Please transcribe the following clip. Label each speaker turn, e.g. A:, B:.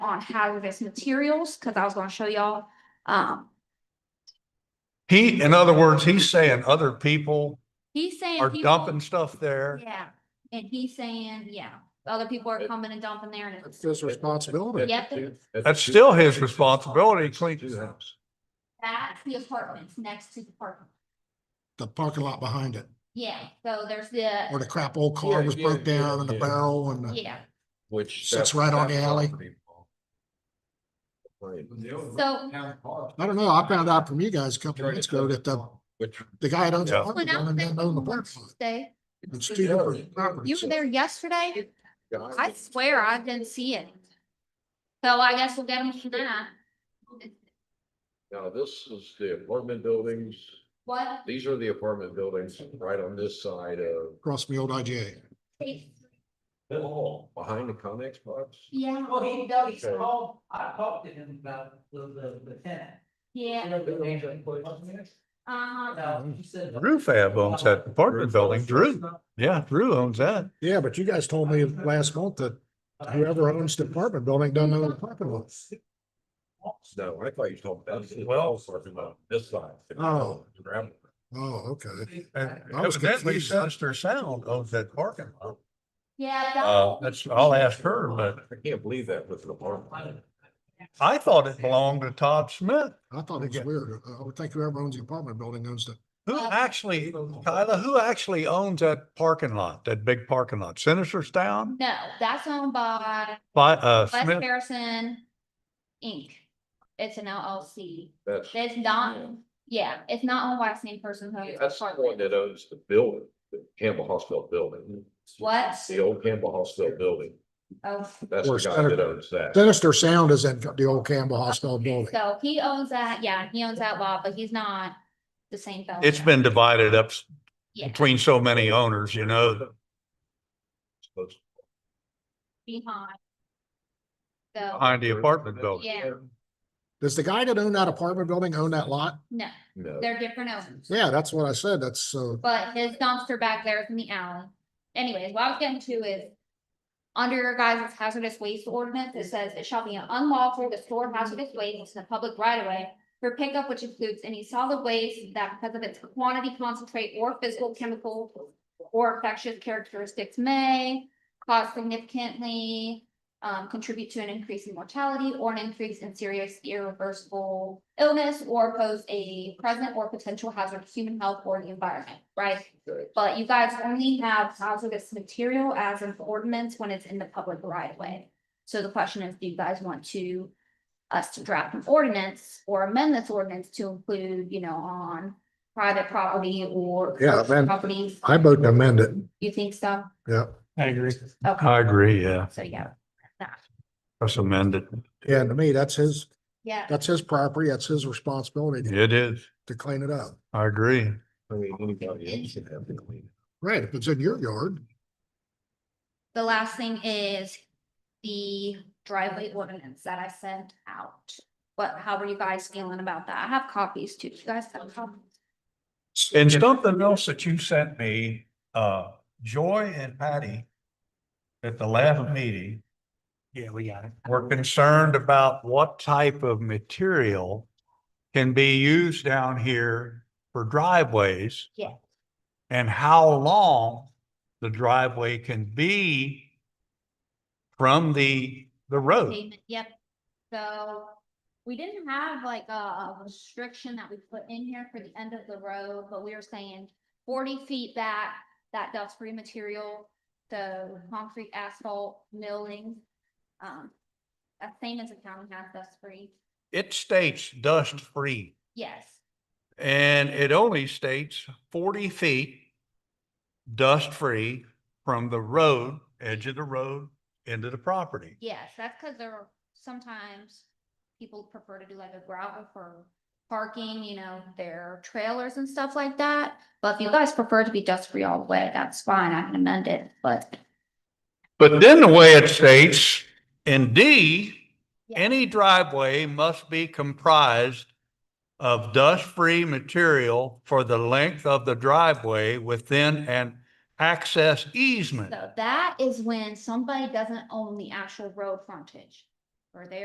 A: hazardous materials, because I was gonna show y'all. Um,
B: He, in other words, he's saying other people
A: he's saying.
B: are
A: people-
B: dumping stuff there.
A: Yeah, and he's saying, yeah, other people are coming and dumping there and
C: That's
A: it's,
C: his responsibility.
A: yep,
B: That's uh, still his responsibility to clean his house.
A: that's the apartments next to the park.
C: The parking lot behind it,
A: Yeah, so there's the,
C: where the crap old car
D: Yeah,
C: was
D: yeah,
C: broke down
D: yeah,
C: and the
D: yeah.
C: barrel and the,
A: yeah,
D: Which.
C: Sits right on the alley.
D: Right.
A: so
C: I don't know, I found out from you guys a couple of minutes ago that the,
D: Which.
C: the guy that owns the
B: Yeah.
C: parking
A: when I
C: lot
A: was
C: and then owned the
A: there
C: parking lot.
A: Thursday,
C: It's two different
A: you
C: properties.
A: were there yesterday, I swear I didn't see it. So I guess we'll get them tonight.
D: Now, this is the apartment buildings.
A: What?
D: These are the apartment buildings right on this side of.
C: Across from the old IGA.
D: Behind the Connex box.
A: Yeah,
E: Well, he does, he's called, I talked to him about the, the, the tenant.
A: yeah, uh,
E: No, he said-
B: Mm-hmm.
E: uh,
B: Drew Fab owns that apartment building. Drew, yeah, Drew owns that.
C: Yeah, but you guys told me last month that
E: uh,
C: whoever owns the apartment building doesn't own the parking lot.
D: No, I thought you told about.
B: Well-
D: Talking about this side.
C: Oh.
D: Gravel.
C: Oh, okay.
B: And
C: I was
B: evidently
C: confused.
B: Sinister Sound owns that parking lot.
A: yeah.
B: Uh, that's, I'll ask her, but
D: I can't believe that with an apartment.
B: I thought it belonged to Todd Smith.
C: I thought it was
B: Yeah.
C: weird. I would think whoever owns the apartment building owns the,
B: Who
A: Uh,
B: actually, Kyla, who actually owns that parking lot, that big parking lot? Sinister Sound?
A: No, that's owned by
B: By, uh,
A: West
B: Smith?
A: Harrison Inc. It's an LLC.
D: That's.
A: It's not, yeah, it's not owned by the same person who owns the
D: That's the one
A: apartment.
D: that owns the building, the Campbell Hospital building.
A: What?
D: The old Campbell Hospital building.
A: Oh,
D: That's
C: Or
D: the guy that
C: Saturday.
D: owns that.
C: Sinister Sound is in the old Campbell Hospital building.
A: so he owns that, yeah, he owns that lot, but he's not the same fellow.
B: It's been divided up
A: Yeah,
B: between so many owners, you know?
A: behind. So,
B: Behind the apartment building.
A: Yeah.
C: Does the guy that owned that apartment building own that lot?
A: no,
D: No.
A: they're different owners,
C: Yeah, that's what I said. That's uh, so.
A: but his dumpster back there is in the alley. Anyways, what I was getting to is under your guys' hazardous waste ordinance, it says it shall be unlawful to store hazardous waste in the public right of way for pickup, which includes any solid waste that because of its quantity, concentrate, or physical, chemical or infectious characteristics may cause significantly um, contribute to an increase in mortality or an increase in serious irreversible illness or pose a present or potential hazard to human health or the environment, right? But you guys only have hazardous material as an ordinance when it's in the public right of way. So the question is, do you guys want to us to draft an ordinance or amend this ordinance to include, you know, on private property or
C: Yeah,
A: commercial
C: then-
A: properties?
C: I vote to amend it.
A: You think so?
C: Yeah.
B: I agree.
A: Okay,
B: I agree, yeah.
A: so yeah,
B: That's amended.
C: Yeah, and to me, that's his,
A: yeah.
C: that's his property. That's his responsibility to-
B: It is.
C: to clean it up.
B: I agree.
D: I mean, anybody else should have to clean
C: Right, if it's in your yard.
A: The last thing is the driveway ordinance that I sent out. But how are you guys feeling about that? I have copies too. Do You guys have copies?
B: And something else that you sent me, uh, Joy and Patty at the last meeting
E: Yeah, we got it.
B: were concerned about what type of material can be used down here for driveways.
A: Yeah.
B: And how long the driveway can be from the, the road.
A: Payment, Yep. So we didn't have like a- a restriction that we put in here for the end of the road, but we were saying forty feet back, that dust-free material, the concrete asphalt milling. Um, that same as the county has dust-free.
B: It states dust-free.
A: Yes.
B: And it only states forty feet dust-free from the road, edge of the road into the property.
A: Yes, that's because there are sometimes people prefer to do like a gravel for parking, you know, their trailers and stuff like that. But if you guys prefer to be dust free all the way, that's fine. I can amend it, but
B: But then the way it states, in D,
A: Yeah.
B: any driveway must be comprised of dust-free material for the length of the driveway within an access easement.
A: so that is when somebody doesn't own the actual road frontage. Or they